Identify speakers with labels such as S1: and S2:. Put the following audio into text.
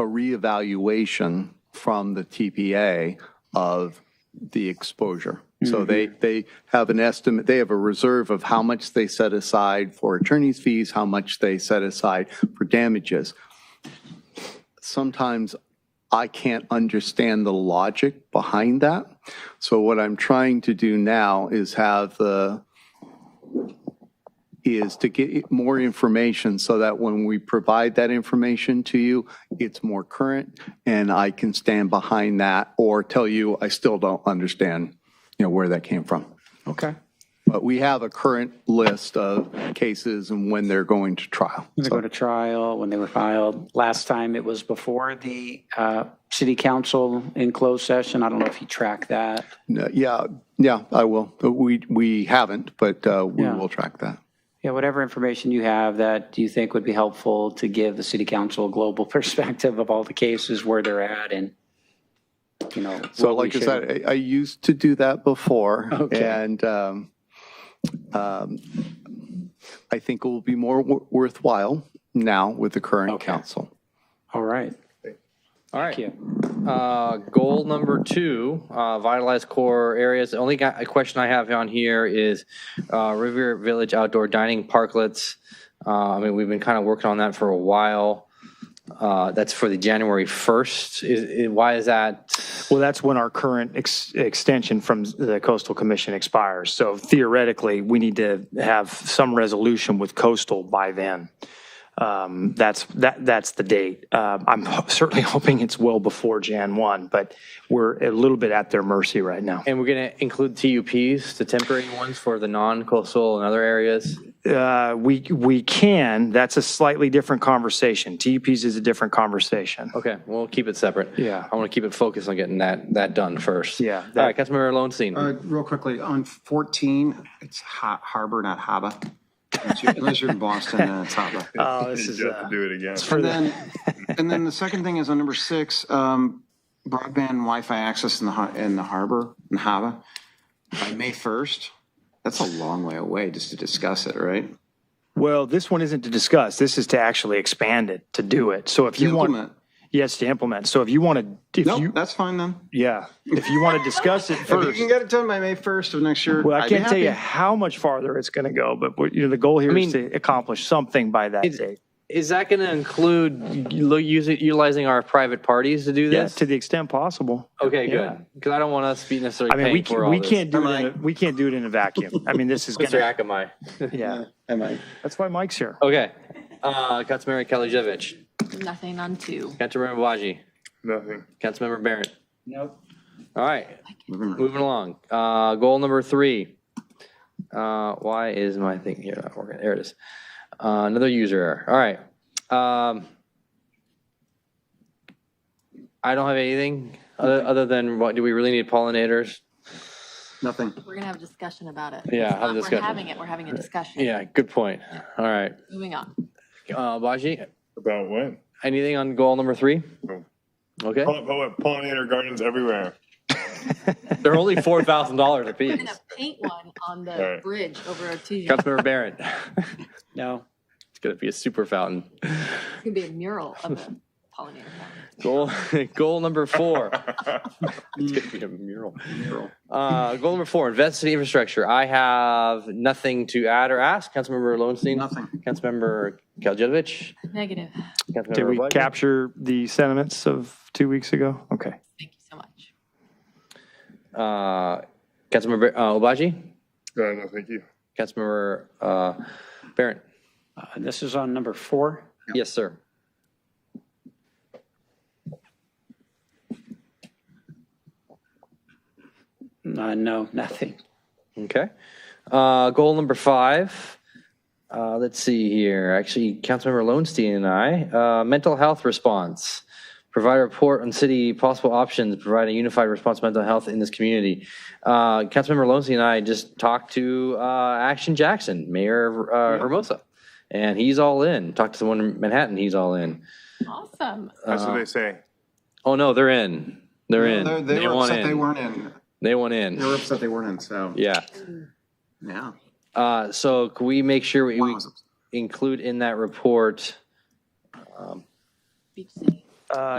S1: a reevaluation from the TPA of the exposure. So they, they have an estimate, they have a reserve of how much they set aside for attorney's fees, how much they set aside for damages. Sometimes I can't understand the logic behind that. So what I'm trying to do now is have the, is to get more information so that when we provide that information to you, it's more current and I can stand behind that or tell you I still don't understand, you know, where that came from.
S2: Okay.
S1: But we have a current list of cases and when they're going to trial.
S2: When they go to trial, when they were filed. Last time it was before the uh, city council in closed session. I don't know if you track that.
S1: No, Yeah, yeah, I will. But We, we haven't, but uh, we
S2: Yeah.
S1: will track that.
S2: Yeah, whatever information you have that you think would be helpful to give the city council a global perspective of all the cases, where they're at and, you know.
S1: So
S2: what we
S1: like I
S2: should-
S1: said, I, I used to do that before.
S2: Okay.
S1: And um, um, I think it will be more wor- worthwhile now with the current
S2: Okay.
S1: council.
S2: All right.
S3: All
S2: Thank
S3: right,
S2: you.
S3: uh, goal number two, uh, vitalize core areas. The only got- question I have on here is uh, Riviera Village outdoor dining parklets. Uh, I mean, we've been kind of working on that for a while. Uh, That's for the January 1st. Is- is- Why is that?
S4: Well, that's when our current ex- extension from the coastal commission expires. So theoretically, we need to have some resolution with coastal by then. Um, That's, that, that's the date. Uh, I'm ho- certainly hoping it's well before Jan 1, but we're a little bit at their mercy right now.
S3: And we're going to include TUPs, the temporary ones for the non-coastal and other areas?
S4: Uh, We, we can, that's a slightly different conversation. TUPs is a different conversation.
S3: Okay, we'll keep it separate.
S4: Yeah.
S3: I want to keep it focused on getting that, that done first.
S4: Yeah,
S3: All right, Councilmember Lowenstein.
S5: Uh, Real quickly, on 14, it's Ha- Harbor, not Harbor. Unless you're- Unless you're in Boston, then it's Harbor.
S4: Oh, this is,
S6: You have to
S4: uh,
S6: do it again.
S4: for
S5: And
S4: the-
S5: then, and then the second thing is on number six, um, broadband Wi-Fi access in the, har- in the harbor, in Hava, by May 1st. That's a long way away just to discuss it, right?
S4: well, this one isn't to discuss. This is to actually expand it, to do it. So if you want.
S5: Implement.
S4: Yes, to implement. So if you want to, if you,
S5: Nope, that's fine then.
S4: yeah, if you want to discuss it
S5: If you
S4: first,
S5: can get it done by May 1st of next year.
S4: well, I
S5: I'd be
S4: can't tell you
S5: happy.
S4: how much farther it's going to go, but what- you know, the goal here
S3: mean-
S4: is to accomplish something by that date.
S3: Is that going to include lo- using- utilizing our private parties to do
S4: Yes,
S3: this?
S4: to the extent possible.
S3: Okay,
S4: Yeah.
S3: good. Because I don't want us to be
S4: I
S3: necessarily
S4: mean, we
S3: paying for
S4: can't,
S3: all
S4: we
S3: this.
S4: can't do it. In a,
S5: Mike.
S4: we can't do it in a vacuum. I mean, this is going
S3: Mr.
S4: to,
S3: Akamai.
S4: yeah.
S5: Am I-
S4: That's why Mike's here.
S3: Okay. Uh, Councilmember Kalijevich,
S7: Nothing on two.
S3: Councilmember Baji,
S6: Nothing.
S3: Councilmember Barrett. Nope. All right,
S5: Moving right.
S3: moving along. Uh, goal number three. Uh, why is my thing here not working? There it is. Uh, another user error. All right. Um, I don't have anything other, other than what do we really need pollinators?
S5: Nothing.
S7: We're gonna have a discussion about it.
S3: Yeah,
S7: It's
S3: have a
S7: not-
S3: discussion.
S7: We're having it, we're having a discussion.
S3: Yeah, good point. All right.
S7: Moving on.
S3: Uh, Baji,
S6: About what?
S3: anything on goal number three?
S6: No.
S3: Okay.
S6: Poll- poll- Pollinator gardens everywhere.
S3: They're only four thousand dollars a
S7: We're
S3: piece.
S7: gonna paint one on the
S6: Alright.
S7: bridge over Artesian. It's
S3: Councilmember Barron,
S2: No.
S3: it's gonna be a super fountain.
S7: gonna be a mural of a pollinator. fountain.
S3: Goal, goal number four. It's gonna be a mural. Uh, goal number four: invest in infrastructure. I have nothing to add or ask. Councilmember Lowenstein.
S5: Nothing.
S3: Councilmember Kaljevich.
S7: Negative.
S3: Councilmember
S4: Did we
S3: White.
S4: capture the sentiments of two weeks ago? Okay.
S7: Thank you so much.
S3: Uh, Councilmember uh, Obaji.
S6: No, no, thank you.
S3: Councilmember uh, Barron.
S2: Uh, This is on number four.
S3: Yes, sir.
S2: Uh, No, nothing.
S3: Okay. Uh, goal number five. Uh, let's see here. Actually, Councilmember Lowenstein and I, uh, mental health response. Provide a report on city possible options, provide a unified response to mental health in this community. Uh, Councilmember Lowenstein and I just talked to uh, Action Jackson, Mayor uh, Hermosa, and he's all in. Talked to someone in Manhattan, he's all in.
S7: Awesome.
S3: Uh,
S6: That's what they say.
S3: Oh no, they're in. They're in.
S5: They're- They were
S3: want
S5: upset
S3: in.
S5: they weren't in.
S3: They want
S5: They were
S3: in.
S5: upset they weren't in, so,
S3: Yeah.
S5: yeah.
S3: Uh, so can we make sure we,
S5: One
S3: we
S5: was upset.
S3: include in that report
S7: Beach City.
S3: Uh,